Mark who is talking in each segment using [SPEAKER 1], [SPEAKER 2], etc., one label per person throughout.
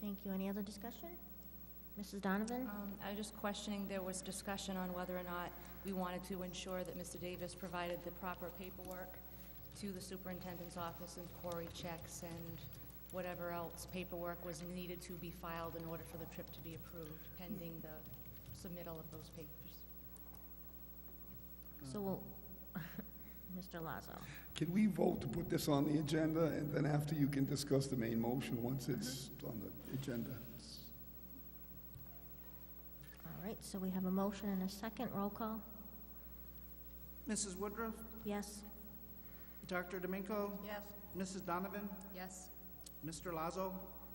[SPEAKER 1] Thank you. Any other discussion? Mrs. Donovan?
[SPEAKER 2] Um, I was just questioning, there was discussion on whether or not we wanted to ensure that Mr. Davis provided the proper paperwork to the superintendent's office and query checks and whatever else paperwork was needed to be filed in order for the trip to be approved, pending the submittal of those papers.
[SPEAKER 1] So, we'll- Mr. Lazo?
[SPEAKER 3] Can we vote to put this on the agenda, and then after you can discuss the main motion once it's on the agenda?
[SPEAKER 1] All right, so we have a motion and a second. Roll call?
[SPEAKER 4] Mrs. Woodruff,
[SPEAKER 1] Yes?
[SPEAKER 4] Dr. D'Amico,
[SPEAKER 2] Yes.
[SPEAKER 4] Mrs. Donovan,
[SPEAKER 2] Yes.
[SPEAKER 4] Mr. Lazo,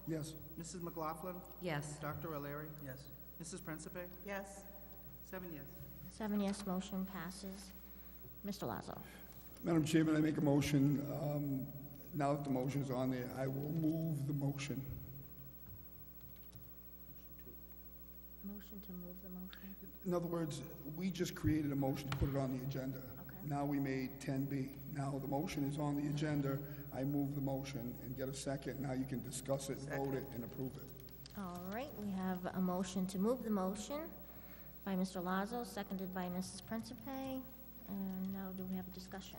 [SPEAKER 3] Yes,
[SPEAKER 4] Mrs. McLaughlin,
[SPEAKER 2] Yes.
[SPEAKER 4] Dr. O'Leary. Yes. Mrs. Principe,
[SPEAKER 5] yes,
[SPEAKER 4] seven yes.
[SPEAKER 1] Seven yes, motion passes. Mr. Lazo?
[SPEAKER 3] Madam Chairman, I make a motion, um, now that the motion is on there, I will move the motion.
[SPEAKER 1] Motion to move the motion.
[SPEAKER 3] In other words, we just created a motion to put it on the agenda.
[SPEAKER 1] Okay.
[SPEAKER 3] Now we made 10B. Now the motion is on the agenda, I move the motion and get a second, now you can discuss it, vote it, and approve it.
[SPEAKER 1] All right, we have a motion to move the motion by Mr. Lazo, seconded by Mrs. Principe. And now do we have a discussion?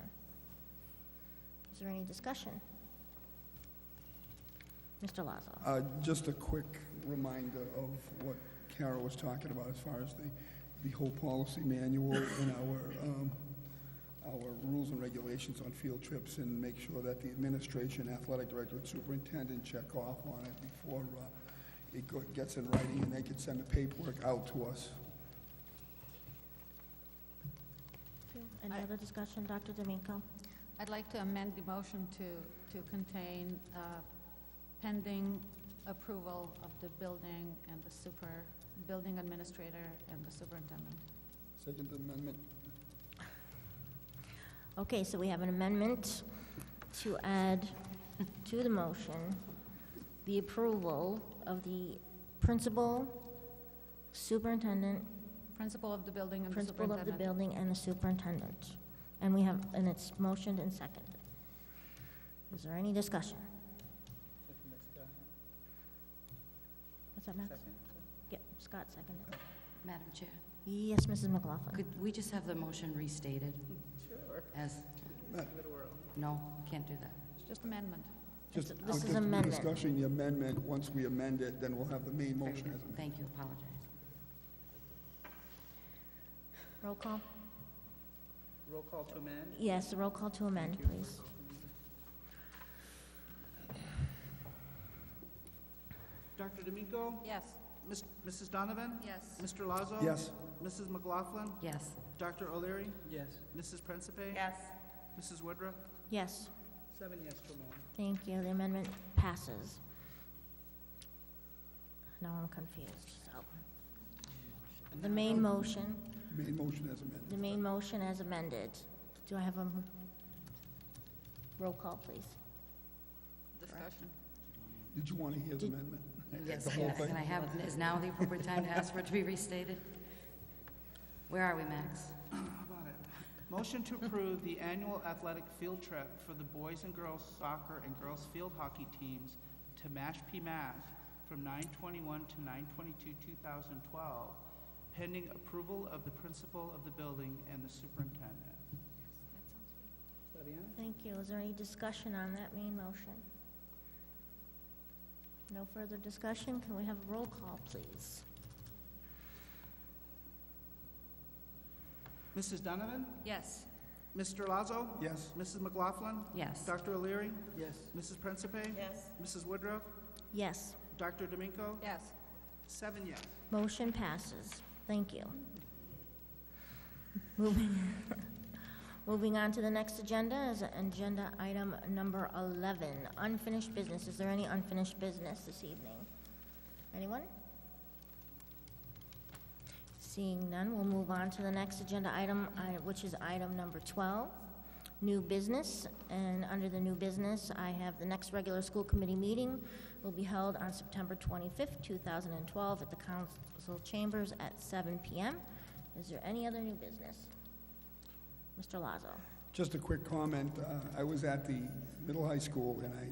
[SPEAKER 1] Is there any discussion? Mr. Lazo?
[SPEAKER 3] Uh, Just a quick reminder of what Carol was talking about as far as the, the whole policy manual and our, um, our rules and regulations on field trips and make sure that the administration, athletic director, and superintendent check off on it before uh, it go- gets in writing and they can send the paperwork out to us.
[SPEAKER 1] Any
[SPEAKER 6] I-
[SPEAKER 1] other discussion, Dr. D'Amico?
[SPEAKER 6] I'd like to amend the motion to, to contain uh, pending approval of the building and the super, building administrator and the superintendent.
[SPEAKER 3] Second Amendment.
[SPEAKER 1] Okay, so we have an amendment to add to the motion the approval of the principal, superintendent,
[SPEAKER 6] Principal of the building and the
[SPEAKER 1] principal of the
[SPEAKER 6] superintendent.
[SPEAKER 1] building, and the superintendent. And we have, and it's motioned and seconded. Is there any discussion? What's that, Max? Yeah, Scott seconded.
[SPEAKER 7] Madam Chair,
[SPEAKER 1] Yes, Mrs. McLaughlin.
[SPEAKER 7] could we just have the motion restated? Sure. As, no, can't do that.
[SPEAKER 6] It's Just amendment.
[SPEAKER 3] Just
[SPEAKER 1] This
[SPEAKER 3] I'll
[SPEAKER 1] is
[SPEAKER 3] just be
[SPEAKER 1] amendment.
[SPEAKER 3] Discussing the amendment, once we amend it, then we'll have the main
[SPEAKER 7] Very
[SPEAKER 3] motion
[SPEAKER 7] good.
[SPEAKER 3] as amended.
[SPEAKER 7] Thank you, apologize.
[SPEAKER 1] Roll call?
[SPEAKER 4] Roll call to amend,
[SPEAKER 1] Yes, roll call to amend, please.
[SPEAKER 4] Dr. D'Amico,
[SPEAKER 6] Yes.
[SPEAKER 4] Ms- Mrs. Donovan,
[SPEAKER 2] Yes.
[SPEAKER 4] Mr. Lazo.
[SPEAKER 3] Yes,
[SPEAKER 4] Mrs. McLaughlin,
[SPEAKER 7] Yes,
[SPEAKER 4] Dr. O'Leary. Yes. Mrs. Principe.
[SPEAKER 5] yes,
[SPEAKER 4] Mrs. Woodruff,
[SPEAKER 1] Yes.
[SPEAKER 4] seven yes to amend.
[SPEAKER 1] Thank you, the amendment passes. Now I'm confused, so. The main motion,
[SPEAKER 3] main motion as
[SPEAKER 1] the
[SPEAKER 3] amended.
[SPEAKER 1] main motion as amended. Do I have a m- roll call, please?
[SPEAKER 6] Discussion.
[SPEAKER 3] Did you want to hear the
[SPEAKER 1] Did-
[SPEAKER 3] amendment?
[SPEAKER 7] yes,
[SPEAKER 3] The whole
[SPEAKER 7] yes,
[SPEAKER 3] thing?
[SPEAKER 7] and I have, is now the appropriate time to ask for it to be restated? Where are we, Max?
[SPEAKER 4] How about it? Motion to approve the annual athletic field trip for the boys and girls soccer and girls field hockey teams to Mashpee, Mass. from 9/21 to 9/22, 2012, pending approval of the principal of the building and the superintendent. Is that it?
[SPEAKER 1] Thank you, is there any discussion on that main motion? No further discussion, can we have a roll call, please?
[SPEAKER 4] Mrs. Donovan?
[SPEAKER 2] Yes.
[SPEAKER 4] Mr. Lazo?
[SPEAKER 3] Yes,
[SPEAKER 4] Mrs. McLaughlin?
[SPEAKER 7] Yes,
[SPEAKER 4] Dr. O'Leary? Yes. Mrs. Principe?
[SPEAKER 5] yes.
[SPEAKER 4] Mrs. Woodruff?
[SPEAKER 1] Yes,
[SPEAKER 4] Dr. D'Amico?
[SPEAKER 6] Yes.
[SPEAKER 4] Seven yes.
[SPEAKER 1] motion passes, thank you. Moving, moving on to the next agenda is agenda item number 11, unfinished business. Is there any unfinished business this evening? Anyone? Seeing none, we'll move on to the next agenda item, uh, which is item number 12, new business. And under the new business, I have the next regular school committee meeting will be held on September 25th, 2012, at the council chambers at 7 p.m. Is there any other new business? Mr. Lazo?
[SPEAKER 3] just a quick comment. Uh, I was at the middle high school and I